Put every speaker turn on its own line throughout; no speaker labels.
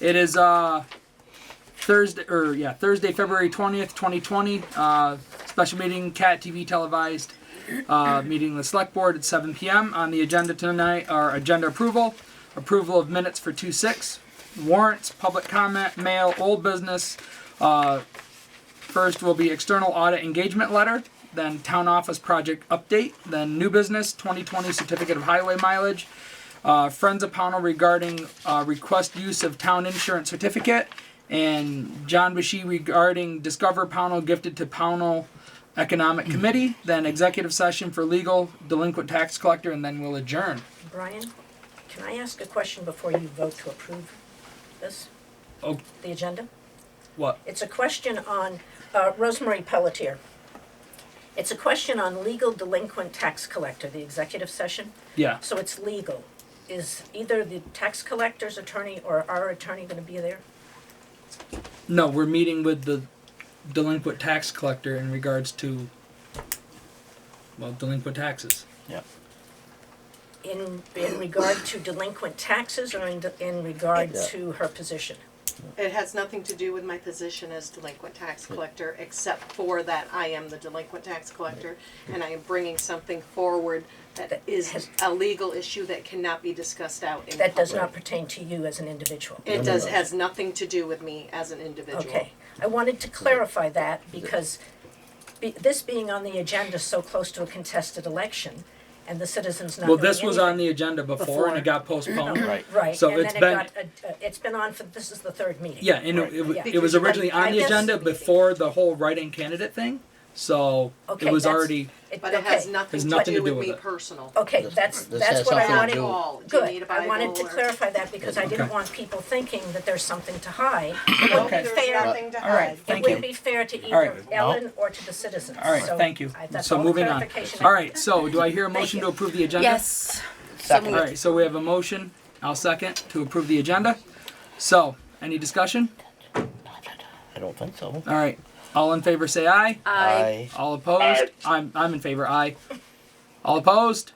It is uh, Thursday or yeah Thursday, February twentieth, twenty twenty. Uh, special meeting, Cat TV televised. Uh, meeting the select board at seven p.m. On the agenda tonight are agenda approval, approval of minutes for two six, warrants, public comment, mail, old business. Uh, First will be external audit engagement letter, then town office project update, then new business, 2020 certificate of highway mileage, uh, Friends of Pownell regarding uh, request use of town insurance certificate, and John Bashy regarding Discover Pownell gifted to Pownell Economic Committee, then executive session for legal, delinquent tax collector, and then we'll adjourn.
Brian, can I ask a question before you vote to approve this?
Oh.
The agenda?
What?
It's a question on uh, Rosemary Pelletier. It's a question on legal delinquent tax collector, the executive session.
Yeah.
So it's legal. Is either the tax collector's attorney or our attorney going to be there?
No, we're meeting with the delinquent tax collector in regards to, well, delinquent taxes.
In, in regard to delinquent taxes or in, in regard
Yeah.
to her position?
It has nothing to do with my position as delinquent tax collector, except for that I am the delinquent tax collector, and I am bringing something forward that is a legal issue that cannot be discussed out in
That does
public.
not pertain to you as an individual.
It does, has nothing to do with me as an individual.
Okay, I wanted to clarify that because be, this being on the agenda so close to a contested election and the citizens not
Well,
knowing
this was on
anything.
the agenda before and it got postponed.
Right.
Right,
so
and
it's
then it
been-
got, uh, uh, it's been on for, this is the third meeting.
Yeah, and it- it, w-
Right.
it was originally on the
I guess-
agenda before the whole write-in candidate thing, so
Okay,
it was
that's-
already,
It-
But it has
okay, Oh,
nothing
Has
to
nothing to
do
do
with me
with it.
personal.
Okay,
This-
that's,
this
that's
has
what I
something to
wanted.
do-
All. Do you need a
Good, I wanted to
Bible or-
clarify that because I didn't
Okay.
want people thinking that there's something to hide.
Nope,
Okay.
There's
Fair.
nothing to
All right.
hide.
It
Thank
would
you.
be fair
All
to
right.
either Ellen or to the citizens, so.
all right, thank you.
I- that's
So
all the
moving on.
clarification I-
All right, so do I hear a motion
you.
to approve the agenda?
Yes.
All
Second.
right, so we have a motion, I'll second, to approve the agenda. So, any discussion?
I don't think so.
All right, all in favor say aye.
I
All opposed? I'm I'm in favor. Aye. All opposed?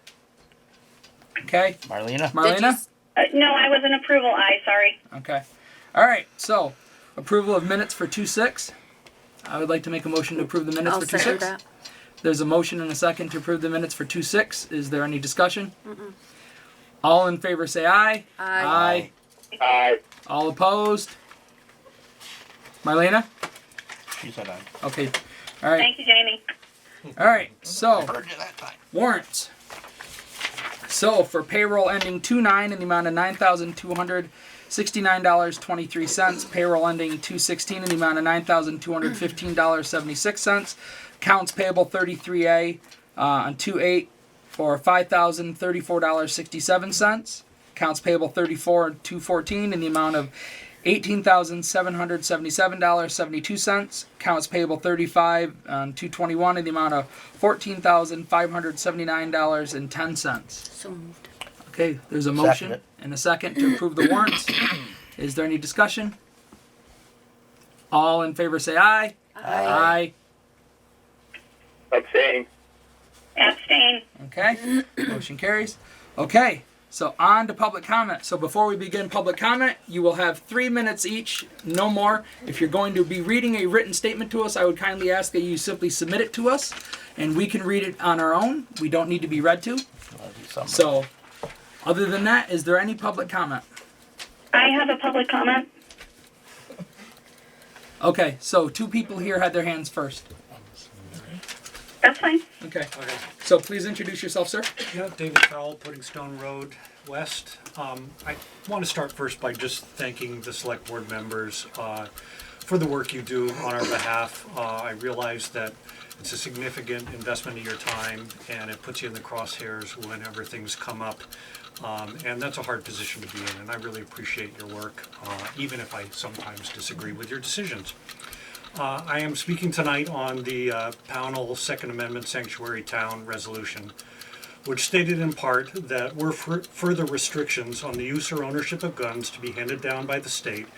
Okay.
Marlena?
Did you
Marlena?
s-
Uh, no, I was an approval aye, sorry.
Okay. All right. So, approval of minutes for 2 6. I would like to make a motion to approve the minutes
I'll
for 2
second
6.
that.
There's a motion and a second to approve the minutes for 2 6. Is there any discussion? All in favor say aye.
Aye.
Aye.
All opposed? Marlena?
She said aye.
Okay. All right.
Thank you, Jamie.
All right. So,
Heard you that time.
warrants. So for payroll ending two nine in the amount of nine thousand two hundred sixty-nine dollars twenty-three cents, payroll ending two sixteen in the amount of nine thousand two hundred fifteen dollars seventy-six cents, accounts payable thirty-three A uh, on two eight for five thousand thirty-four dollars sixty-seven cents, accounts payable thirty-four and two fourteen in the amount of eighteen thousand seven hundred seventy-seven dollars seventy-two cents. Accounts payable thirty-five and two twenty-one in the amount of fourteen thousand five hundred seventy-nine dollars and ten cents.
So moved.
Okay, there's a
Second
motion
it.
and a second to approve the warrants. Is there any discussion? All in favor say aye. Aye.
Abstain.
Abstain.
Okay, motion carries. Okay, so on to public comment. So before we begin public comment, you will have three minutes each, no more. If you're going to be reading a written statement to us, I would kindly ask that you simply submit it to us and we can read it on our own. We don't need to be read to.
Love you, summer.
So, other than that, is there any public comment?
I have a public comment.
Okay, so two people here had their hands first.
That's fine.
Okay, so please introduce yourself, sir.
Yeah, David Powell, Pudding Stone Road West. Um, I want to start first by just thanking the select board members uh, for the work you do on our behalf. Uh, I realize that it's a significant investment of your time, and it puts you in the crosshairs whenever things come up. Um, And that's a hard position to be in, and I really appreciate your work, uh, even if I sometimes disagree with your decisions. Uh, I am speaking tonight on the uh, Pownell Second Amendment Sanctuary Town Resolution which stated in part that were fur- further restrictions on the use or ownership of guns to be handed down by the state,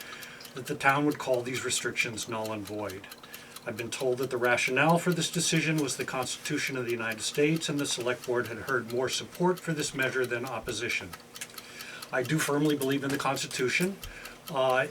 that the town would call these restrictions null and void. I've been told that the rationale for this decision was the Constitution of the United States, and the Select Board had heard more support for this measure than opposition. I do firmly believe in the Constitution. Uh,